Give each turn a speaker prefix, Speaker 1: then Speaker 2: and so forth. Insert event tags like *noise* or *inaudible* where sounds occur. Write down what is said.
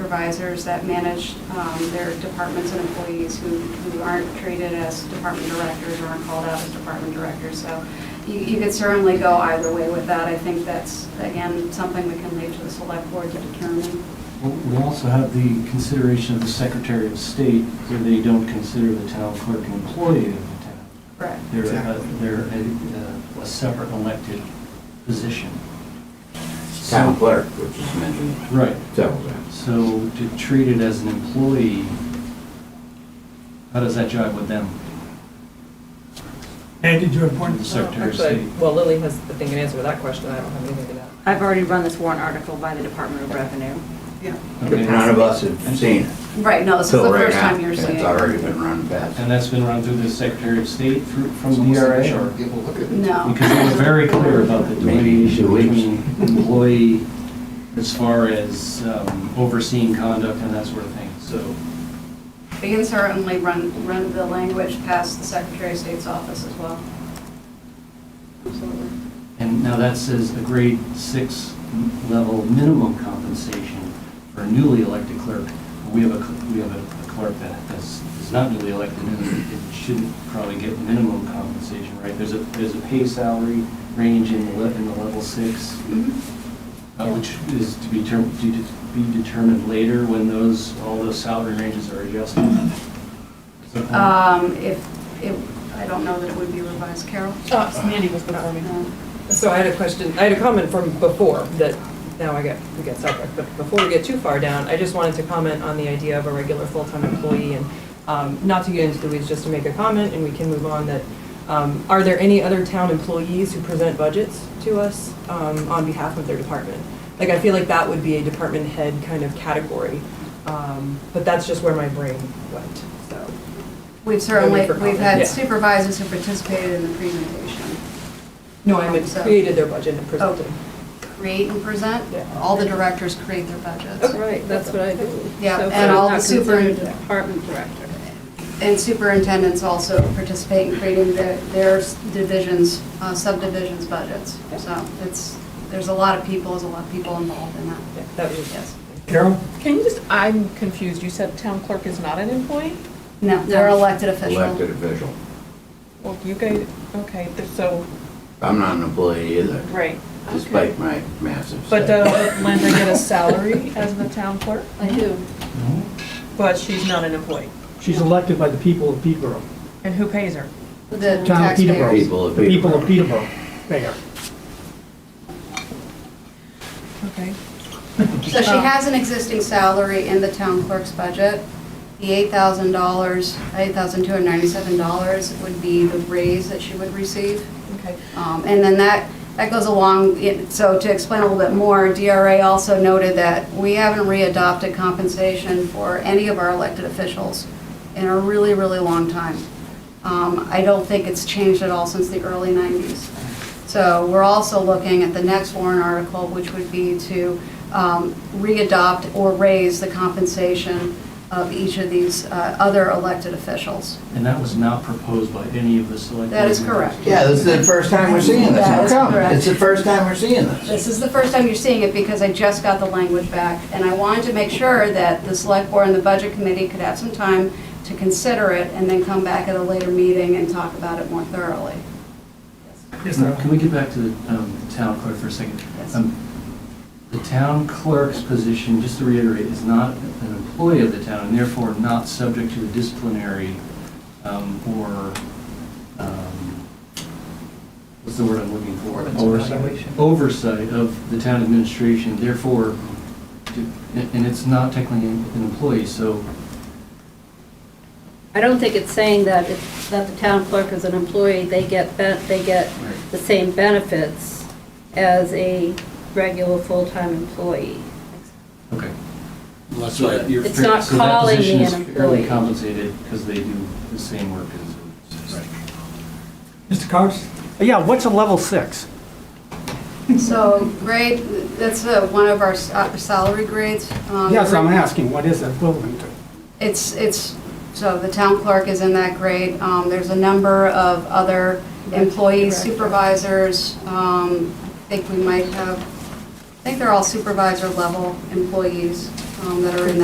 Speaker 1: supervisors that manage um, their departments and employees who who aren't treated as department directors or aren't called out as department directors. So you- you could certainly go either way with that. I think that's, again, something we can leave to the select board to determine.
Speaker 2: Well, We also have the consideration of the Secretary of State, where they don't consider the town clerk an employee of the town.
Speaker 1: Correct.
Speaker 2: They're, a-
Speaker 3: Exactly.
Speaker 2: they're a- a, a separate elected position.
Speaker 4: town
Speaker 2: So-
Speaker 4: clerk, which is mentioned
Speaker 2: Right,
Speaker 4: several times.
Speaker 2: so to treat it as an employee, how does that jive with them,
Speaker 3: Ed, did you have one?
Speaker 2: with the Secretary of
Speaker 5: Actually,
Speaker 2: State?
Speaker 5: well, Lily has the thing and answer to that question, I don't have anything to that.
Speaker 6: I've already run this warrant article by the Department of Revenue.
Speaker 1: Yeah.
Speaker 2: Okay.
Speaker 4: None of us have seen it.
Speaker 1: Right, no, Oh, this is the
Speaker 4: till right
Speaker 1: first
Speaker 4: now,
Speaker 1: time you're
Speaker 4: and
Speaker 1: seeing
Speaker 4: It's
Speaker 1: it.
Speaker 4: already been run past.
Speaker 2: And that's been run through the Secretary of State through, from E
Speaker 7: Someone said
Speaker 4: E
Speaker 2: DRA?
Speaker 7: we should be able to look at it.
Speaker 1: No.
Speaker 2: *laughs* Because they were very clear about the
Speaker 4: Maybe two
Speaker 2: delineation
Speaker 4: weeks.
Speaker 2: between employee as far as um, overseeing conduct and that sort of thing, so.
Speaker 1: *laughs* We can certainly run, run the language past the Secretary of State's office as well. Absolutely.
Speaker 2: And now that says a grade six level minimum compensation for a newly elected clerk. We have a, cl- we have a clerk that is, is not newly elected, and it shouldn't probably get minimum compensation, right? There's a, there's a pay salary range in the, le- in the level six.
Speaker 1: Mm-hmm.
Speaker 2: Uh, Which is to be term- to de- be determined later when those, all those salary ranges are adjusted. Is that-
Speaker 1: Um, If, it I don't know that it would be revised, Carol? Um,
Speaker 5: Oh, Mandy was before
Speaker 1: No.
Speaker 5: So I had a question, I had a comment from before that, now I get, we get sidetracked, but before we get too far down, I just wanted to comment on the idea of a regular full-time employee and um, not to get into the weeds, just to make a comment and we can move on that, um, are there any other town employees who present budgets to us um, on behalf of their department? Like, I feel like that would be a department head kind of category, um, but that's just where my brain went, so.
Speaker 1: We've certainly,
Speaker 5: Only for
Speaker 1: we've had
Speaker 5: comment.
Speaker 1: supervisors who participated in the presentation.
Speaker 5: No, I meant
Speaker 1: So-
Speaker 5: created their budget
Speaker 8: Oh,
Speaker 5: and presented.
Speaker 1: Create and present,
Speaker 5: Yeah.
Speaker 1: all the directors create their budgets.
Speaker 8: Right, that's what I do.
Speaker 1: Yeah,
Speaker 8: So,
Speaker 1: and
Speaker 8: but I'm
Speaker 1: all
Speaker 8: not
Speaker 1: the super-
Speaker 8: considered a Department director.
Speaker 1: And superintendents also participate in creating their, their divisions, uh, subdivisions budgets. So it's, there's a lot of people, there's a lot of people involved in that.
Speaker 5: Yeah, That was,
Speaker 1: Yes.
Speaker 3: Carol?
Speaker 1: Uh,
Speaker 9: Can you just, I'm confused, you said town clerk is not an employee?
Speaker 1: No, they're elected official.
Speaker 4: Elected official.
Speaker 9: Well, you guys, okay, th- so,
Speaker 4: I'm not an employee either,
Speaker 9: right.
Speaker 4: despite my massive.
Speaker 9: But
Speaker 4: salary.
Speaker 9: does Linda get a salary as the town clerk?
Speaker 8: I do.
Speaker 9: But she's not an employee.
Speaker 3: She's elected by the people of Peterborough,
Speaker 9: And who pays her?
Speaker 1: The
Speaker 3: Town of Peterborough.
Speaker 1: taxpayers.
Speaker 4: People of
Speaker 3: the people of
Speaker 4: Peterborough.
Speaker 3: Peterborough, mayor.
Speaker 9: Okay.
Speaker 1: So she has an existing salary in the town clerk's budget. The eight thousand dollars, eight thousand two hundred ninety-seven dollars would be the raise that she would receive.
Speaker 9: Okay.
Speaker 1: Um, And then that, that goes along, it- so to explain a little bit more, DRA also noted that we haven't readopted compensation for any of our elected officials in a really, really long time. Um, I don't think it's changed at all since the early 90s. So we're also looking at the next warrant article, which would be to um, readopt or raise the compensation of each of these uh, other elected officials.
Speaker 2: And that was not proposed by any of the select.
Speaker 1: That is
Speaker 2: board members.
Speaker 1: correct.
Speaker 4: Yeah, this is the first time we're seeing this.
Speaker 1: That
Speaker 4: How
Speaker 1: is
Speaker 4: come?
Speaker 1: correct.
Speaker 4: It's the first time we're seeing this.
Speaker 1: This is the first time you're seeing it because I just got the language back, and I wanted to make sure that the select board and the budget committee could have some time to consider it and then come back at a later meeting and talk about it more thoroughly.
Speaker 3: Yes,
Speaker 2: Now, Can
Speaker 3: sir.
Speaker 2: we get back to the um, town clerk for a second?
Speaker 1: Yes.
Speaker 2: Um, The town clerk's position, just to reiterate, is not an employee of the town and therefore not subject to a disciplinary um, or, um, what's the word I'm looking for? Oversight. Oversight of the town administration, therefore, to- and and it's not technically an employee, so
Speaker 8: I don't think it's saying that if, that the town clerk is an employee, they get, ben- they get
Speaker 2: Right.
Speaker 8: the same benefits as a regular full-time employee.
Speaker 2: Okay.
Speaker 7: Well, that's
Speaker 2: So
Speaker 7: why-
Speaker 2: that you're
Speaker 8: It's
Speaker 2: fair-
Speaker 8: not
Speaker 2: so that
Speaker 8: calling
Speaker 2: position
Speaker 8: me
Speaker 2: is
Speaker 8: an
Speaker 2: fairly
Speaker 8: employee.
Speaker 2: compensated because they do the same work as.
Speaker 3: Mr. Cox? Yeah, what's a level six?
Speaker 1: So, grade, that's uh, one of our s- uh, salary grades. um,
Speaker 3: Yes, I'm asking, what is it equivalent to?
Speaker 1: It's, it's, so the town clerk is in that grade. Um, There's a number of other employees, supervisors. um, I think we might have, I think they're all supervisor level employees um, that are in that